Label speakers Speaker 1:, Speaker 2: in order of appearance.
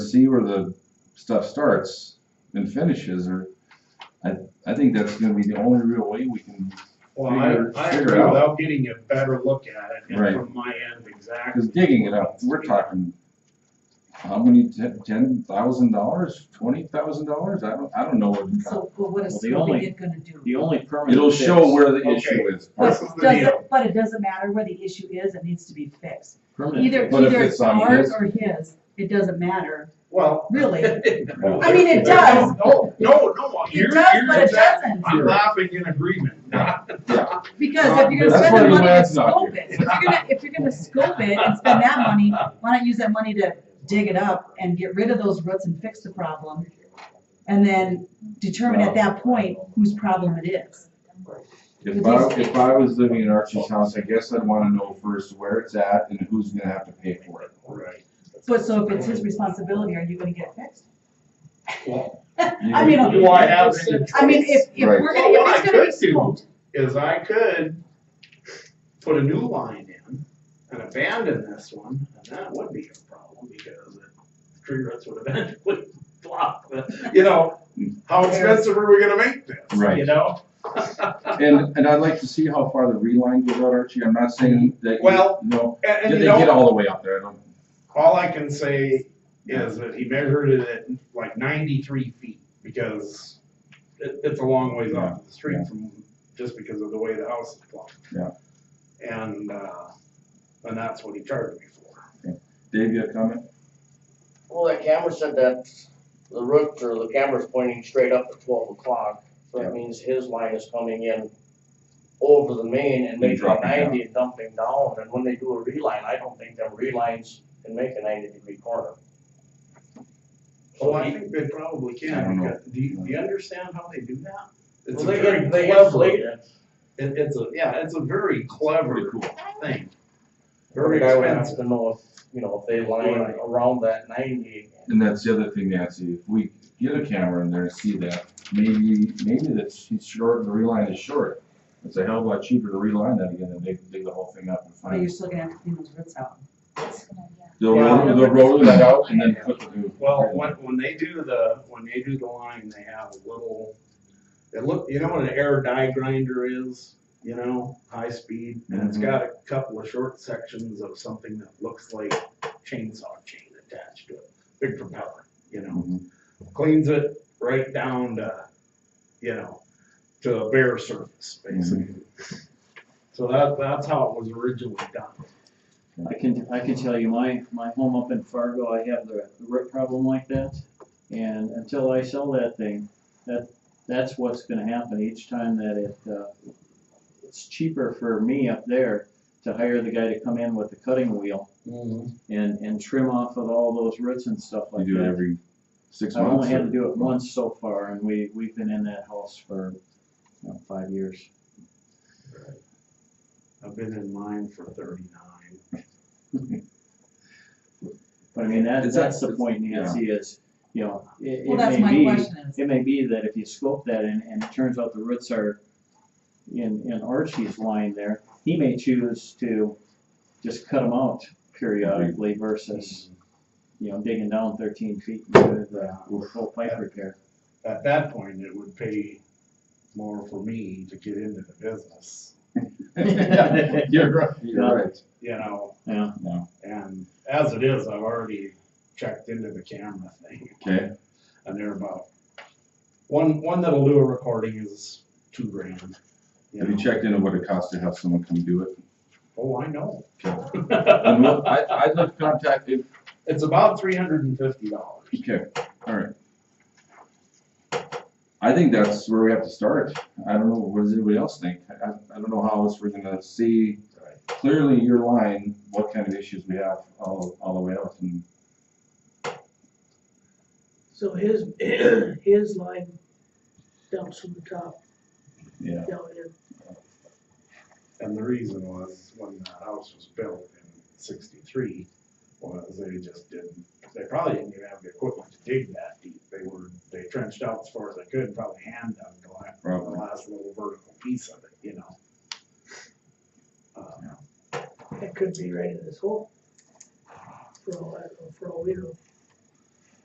Speaker 1: see where the stuff starts and finishes, or, I, I think that's gonna be the only real way we can,
Speaker 2: Well, I,
Speaker 1: Figure-
Speaker 2: I
Speaker 1: figure
Speaker 2: agree
Speaker 1: out.
Speaker 2: without getting a better look at it
Speaker 1: Right.
Speaker 2: and from my end exactly.
Speaker 1: cause digging it up, we're talking, how many, ten, ten thousand dollars, twenty thousand dollars, I don't, I don't know what. it costs.
Speaker 3: So, but what is
Speaker 4: Well, the only-
Speaker 3: scoping it gonna do?
Speaker 4: The only permanent.
Speaker 1: It'll show
Speaker 4: fix-
Speaker 1: where the
Speaker 2: Okay.
Speaker 1: issue is.
Speaker 3: But
Speaker 2: This is the
Speaker 3: doesn't,
Speaker 2: deal.
Speaker 3: but it doesn't matter what the issue is, it needs to be fixed.
Speaker 4: Permanent.
Speaker 3: Either,
Speaker 4: fix.
Speaker 1: But if
Speaker 3: either
Speaker 1: it's
Speaker 3: it's
Speaker 1: on
Speaker 3: ours
Speaker 1: his-
Speaker 3: or his, it doesn't matter,
Speaker 2: Well.
Speaker 3: really.
Speaker 1: Well,
Speaker 3: I mean, it does.
Speaker 2: No, no, no, you're,
Speaker 3: It does,
Speaker 2: you're
Speaker 3: but it
Speaker 2: exact-
Speaker 3: doesn't,
Speaker 2: I'm laughing in agreement.
Speaker 3: because if you're gonna
Speaker 1: That's
Speaker 3: spend
Speaker 1: why
Speaker 3: the
Speaker 1: your
Speaker 3: money to
Speaker 1: lad's not
Speaker 3: scope
Speaker 1: here.
Speaker 3: it, if you're gonna, if you're gonna scope it and spend that money, why not use that money to dig it up and get rid of those roots and fix the problem? And then determine at that point whose problem it is.
Speaker 1: If I, if I was living in Archie's house, I guess I'd wanna know first where it's at and who's gonna have to pay for it.
Speaker 2: Right.
Speaker 3: But so if it's his responsibility, are you gonna get it fixed?
Speaker 1: You
Speaker 3: I mean,
Speaker 1: know,
Speaker 2: Do I have any choice?
Speaker 3: I mean, if, if we're gonna,
Speaker 2: Well, what
Speaker 3: if
Speaker 2: I
Speaker 3: it's gonna be
Speaker 2: could do-
Speaker 3: scoped,
Speaker 2: Is I could put a new line in and abandon this one, and that would be a problem because the tree roots would eventually block the, you know, how expensive are we gonna make this? You
Speaker 1: Right.
Speaker 2: know?
Speaker 1: And, and I'd like to see how far the reline goes out, Archie, I'm not saying that,
Speaker 2: Mm-hmm. Well,
Speaker 1: you know,
Speaker 2: And, and
Speaker 1: did they
Speaker 2: you know.
Speaker 1: get all the way out there, I don't,
Speaker 2: All I can say is that he measured it at like ninety-three feet, because it, it's a long ways off the
Speaker 1: Yeah, yeah.
Speaker 2: street from, just because of the way the house is blocked.
Speaker 1: Yeah.
Speaker 2: And, uh, and that's what he charged me for.
Speaker 1: Dave, you have a comment?
Speaker 5: Well, that camera said that the root or the camera's pointing straight up at twelve o'clock, so
Speaker 1: Yeah.
Speaker 5: that means his line is coming in over the main and they
Speaker 1: And
Speaker 5: draw
Speaker 1: dropping down.
Speaker 5: ninety and dumping down, and when they do a reline, I don't think them relines can make a ninety degree corner.
Speaker 2: Well, I think they probably
Speaker 1: I don't
Speaker 2: can,
Speaker 1: know.
Speaker 2: because- do you, do you understand how they do that? It's
Speaker 5: Well,
Speaker 2: a
Speaker 5: they
Speaker 2: very
Speaker 5: get, they get
Speaker 2: clever, it,
Speaker 5: slated.
Speaker 2: it's a, yeah, it's a very clever
Speaker 1: cool.
Speaker 2: thing.
Speaker 5: Every
Speaker 2: Very
Speaker 5: guy would have
Speaker 2: expensive.
Speaker 5: to know if, you know, if they line
Speaker 2: Right.
Speaker 5: around that ninety.
Speaker 1: And that's the other thing, Nancy, if we get a camera in there and see that, maybe, maybe that she's short, the reline is short. It's a hell of a lot cheaper to reline that again than dig, dig the whole thing up and
Speaker 3: But you're
Speaker 1: find.
Speaker 3: still gonna have to clean those roots out.
Speaker 1: They'll
Speaker 2: Yeah.
Speaker 1: roll, they'll roll that out and then put the new.
Speaker 2: Well, when, when they do the, when they do the line, they have a little, it look, you know what an air die grinder is? You know, high speed, and it's
Speaker 1: Mhm.
Speaker 2: got a couple of short sections of something that looks like chainsaw chain attached to it, big propeller, you know?
Speaker 1: Mhm.
Speaker 2: Cleans it right down to, you know, to a bare surface, basically. So that, that's how it was originally done.
Speaker 4: I can, I can tell you, my, my home up in Fargo, I have the the root problem like that. And until I sell that thing, that, that's what's gonna happen each time that it, uh, it's cheaper for me up there to hire the guy to come in with the cutting wheel and, and trim off of all those roots and stuff
Speaker 1: You
Speaker 4: like
Speaker 1: do it
Speaker 4: that.
Speaker 1: every six
Speaker 4: I've
Speaker 1: months.
Speaker 4: only had to
Speaker 1: or-
Speaker 4: do it once so far and we, we've been in that house for, you know, five years.
Speaker 2: I've been in mine for thirty-nine.
Speaker 4: But I mean, that,
Speaker 1: Is that-
Speaker 4: that's the point Nancy is, you know, it,
Speaker 3: Well,
Speaker 4: it
Speaker 3: that's
Speaker 4: may
Speaker 3: my
Speaker 4: be.
Speaker 3: question is,
Speaker 4: It may be that if you scope that and, and it turns out the roots are in, in Archie's line there, he may choose to just cut them out periodically versus,
Speaker 1: Mm-hmm.
Speaker 4: you know, digging down thirteen feet into the full pipe repair.
Speaker 2: at that point, it would pay more for me to get into the business,
Speaker 1: You're right, you're right.
Speaker 2: you know,
Speaker 4: Yeah,
Speaker 2: and as it is, I've already checked into the camera thing,
Speaker 1: Okay,
Speaker 2: and they're about, one, one that'll do a recording is two grand.
Speaker 1: have
Speaker 2: know.
Speaker 1: you checked into what it costs to have someone come do it?
Speaker 2: Oh, I know.
Speaker 1: And what- I, I'd like to contact, if-
Speaker 2: It's about three hundred and fifty dollars.
Speaker 1: Okay, all right. I think that's where we have to start. I don't know, what does anybody else think? I, I- I don't know how else we're gonna see clearly your line, what kind of issues we have all, all the way out and.
Speaker 6: So his, his line dumps from the top
Speaker 1: Yeah.
Speaker 6: down in.
Speaker 2: And the reason was, when that house was built in sixty-three, was they just didn't, they probably didn't even have the equipment to dig that deep. They were, they trenched out as far as they could, and probably hand dug the last, the
Speaker 1: Probably.
Speaker 2: last little vertical piece of it, you know? Um, Uh,
Speaker 6: It could be right in this hole. For all, I- for all we know.